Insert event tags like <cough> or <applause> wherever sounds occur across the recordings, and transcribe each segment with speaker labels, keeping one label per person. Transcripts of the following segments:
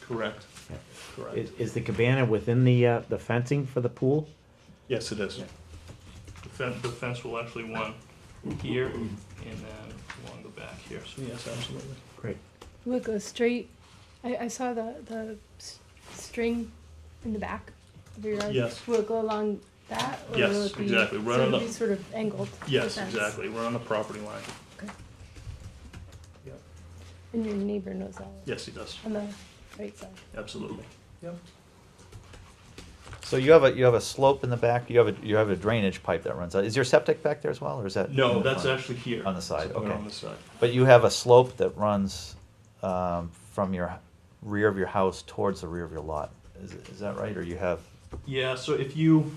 Speaker 1: Correct.
Speaker 2: Yeah.
Speaker 1: Correct.
Speaker 2: Is, is the cabana within the, uh, the fencing for the pool?
Speaker 1: Yes, it is.
Speaker 2: Yeah.
Speaker 3: The fence, the fence will actually one here and then along the back here, so
Speaker 1: Yes, absolutely.
Speaker 2: Great.
Speaker 4: Look, the straight, I, I saw the, the s- string in the back of your yard.
Speaker 1: Yes.
Speaker 4: Will it go along that? or
Speaker 3: Yes,
Speaker 4: will it be-
Speaker 3: exactly, right
Speaker 4: so
Speaker 3: on
Speaker 4: it'll
Speaker 3: the-
Speaker 4: be Sort of angled. to the
Speaker 3: Yes,
Speaker 4: fence?
Speaker 3: exactly, we're on the property line.
Speaker 4: And your neighbor knows that,
Speaker 3: Yes, he does,
Speaker 4: on the right side.
Speaker 3: absolutely.
Speaker 5: So you have a, you have a slope in the back, you have a, you have a drainage pipe that runs out. Is your septic back there as well, or is that?
Speaker 3: No, that's actually here.
Speaker 5: On the side,
Speaker 3: Somewhere
Speaker 5: okay.
Speaker 3: On the side,
Speaker 5: But you have a slope that runs, um, from your h- rear of your house towards the rear of your lot. Is, is that right? Or you have,
Speaker 3: yeah, so if you,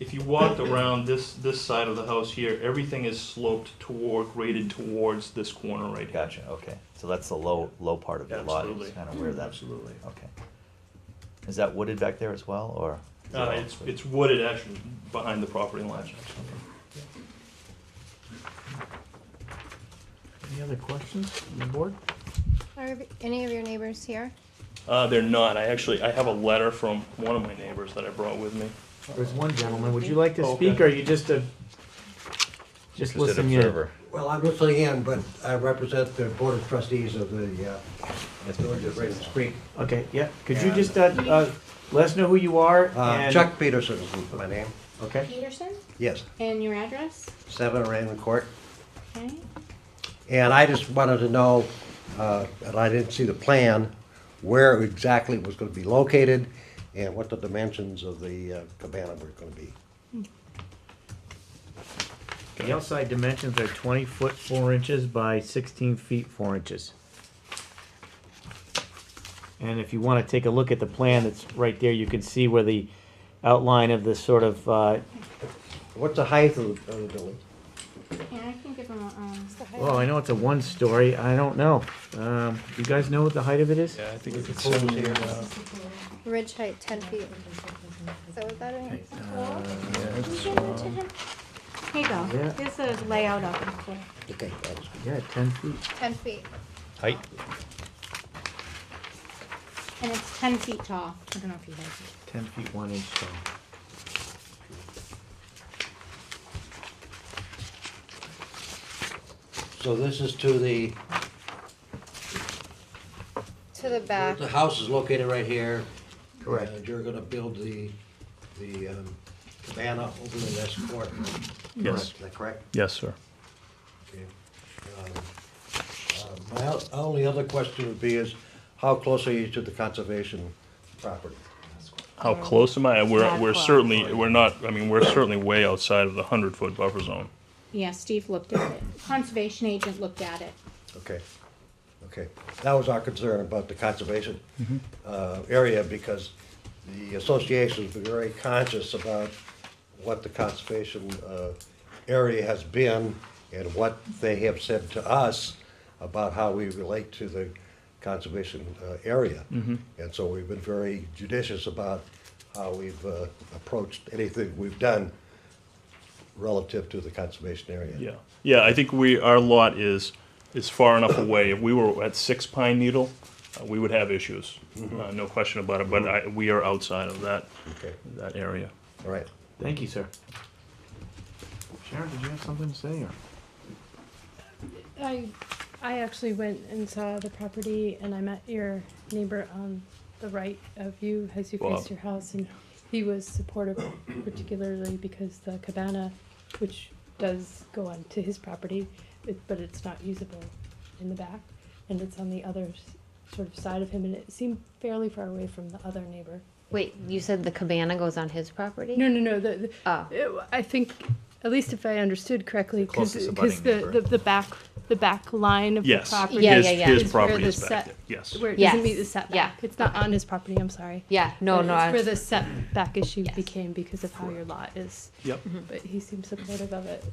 Speaker 3: if you walked around this, this side of the house here, everything is sloped toward, graded towards this corner right here.
Speaker 5: gotcha, okay. So that's the low, low part of your lot,
Speaker 3: Absolutely.
Speaker 5: is kind of where that,
Speaker 3: Absolutely.
Speaker 5: okay. Is that wooded back there as well, or? is that
Speaker 3: Uh,
Speaker 5: all-
Speaker 3: it's, it's wooded actually behind the property line.
Speaker 2: Any other questions on the board?
Speaker 6: Are any of your neighbors here?
Speaker 3: Uh, they're not, I actually, I have a letter from one of my neighbors that I brought with me.
Speaker 2: There's one gentleman, would you like to
Speaker 3: Okay.
Speaker 2: speak, or are you just a, just
Speaker 5: Just an
Speaker 2: listening in?
Speaker 5: observer.
Speaker 7: Well, I'm listening in, but I represent the Board of Trustees of the uh, Village of Ravens Creek.
Speaker 2: Okay, yeah, could you just, uh, uh, let us know who you are?
Speaker 7: Uh,
Speaker 2: and-
Speaker 7: Chuck Peterson is my name.
Speaker 2: Okay,
Speaker 6: Peterson?
Speaker 7: Yes,
Speaker 6: And your address?
Speaker 7: 7 Raymond Court.
Speaker 6: Okay.
Speaker 7: And I just wanted to know, uh, and I didn't see the plan, where exactly it was going to be located and what the dimensions of the uh, cabana were going to be.
Speaker 2: the outside dimensions are twenty foot four inches by sixteen feet four inches. And if you wanna take a look at the plan that's right there, you can see where the outline of the sort of, uh,
Speaker 7: What's the height of the of the building?
Speaker 6: Yeah, I can give them a, um,
Speaker 4: It's the height.
Speaker 2: Well, I know it's a one story. I don't know. Um, you guys know what the height of it is?
Speaker 1: Yeah, I think it's
Speaker 7: Close
Speaker 1: seventy.
Speaker 7: here.
Speaker 1: uh,
Speaker 6: ridge height ten feet. Is that what that is? Here you go,
Speaker 2: Yeah.
Speaker 6: here's the layout of it for
Speaker 7: Okay, that's good.
Speaker 2: Yeah, ten feet.
Speaker 6: ten feet,
Speaker 5: Height?
Speaker 6: and it's ten feet tall. I don't know if you guys.
Speaker 2: Ten feet one inch tall.
Speaker 7: So this is to the,
Speaker 6: To the back,
Speaker 7: the house is located right here.
Speaker 2: Correct.
Speaker 7: And you're going to build the, the um, cabana over in this court.
Speaker 3: Yes,
Speaker 7: Is that correct?
Speaker 3: yes, sir.
Speaker 7: Okay. Um, uh, My o- only other question would be is, how close are you to the conservation property?
Speaker 3: How close am I? We're,
Speaker 6: Not
Speaker 3: we're
Speaker 6: close.
Speaker 3: certainly, we're not, I mean, we're certainly way outside of the hundred foot buffer zone.
Speaker 6: yeah, Steve looked
Speaker 3: <clears throat>
Speaker 6: at it, conservation agent looked at it.
Speaker 7: Okay, okay. That was our concern about the conservation uh, area, because the association's been very conscious about what the conservation uh, area has been and what they have said to us about how we relate to the conservation uh, area. And so we've been very judicious about how we've uh, approached anything we've done relative to the conservation area.
Speaker 3: Yeah, yeah, I think we, our lot is, is far enough away. If we were at Six Pine Needle, uh, we would have issues, uh, no question about it, but I, we are outside of that,
Speaker 7: Okay,
Speaker 3: that area.
Speaker 7: all right.
Speaker 2: Thank you, sir. Sharon, did you have something to say? Or?
Speaker 4: I, I actually went and saw the property and I met your neighbor on the right of you as you
Speaker 3: Bob.
Speaker 4: faced your house and he was supportive particularly because the cabana, which does go on to his property, it, but it's not usable in the back and it's on the other s- sort of side of him and it seemed fairly far away from the other neighbor.
Speaker 8: Wait, you said the cabana goes on his property?
Speaker 4: No, no, no, the, the,
Speaker 8: Oh,
Speaker 4: it- I think, at least if I understood correctly, because
Speaker 5: closest abutting
Speaker 4: the,
Speaker 5: neighbor.
Speaker 4: the, the back, the back line of
Speaker 3: Yes,
Speaker 4: the property.
Speaker 8: Yeah,
Speaker 3: his,
Speaker 8: yeah, yeah.
Speaker 4: is
Speaker 3: his
Speaker 4: where
Speaker 3: property
Speaker 4: the
Speaker 3: is back
Speaker 4: set-
Speaker 3: there, yes.
Speaker 4: Where it
Speaker 8: Yes.
Speaker 4: doesn't meet the
Speaker 8: Yeah.
Speaker 4: setback. It's not on his property, I'm sorry.
Speaker 8: yeah, no,
Speaker 4: But
Speaker 8: no.
Speaker 4: It's
Speaker 8: I-
Speaker 4: where the setback issue
Speaker 8: Yes.
Speaker 4: became because of how your lot is.
Speaker 3: Yep.
Speaker 4: But he seemed supportive of it.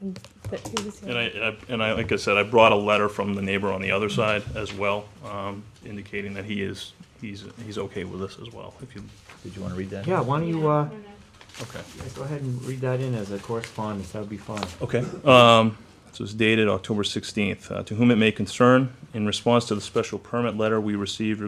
Speaker 4: And that he was.
Speaker 3: And I, I- and I, like I said, I brought a letter from the neighbor on the other side as well, um, indicating that he is, he's, he's okay with us as well, if you,
Speaker 5: Did you wanna read that?
Speaker 2: Yeah, why don't you uh,
Speaker 3: okay.
Speaker 2: go ahead and read that in as a correspondence? That would be fine.
Speaker 3: Okay, um, this was Uh, dated October sixteenth. To whom it may concern, in response to the special permit letter we received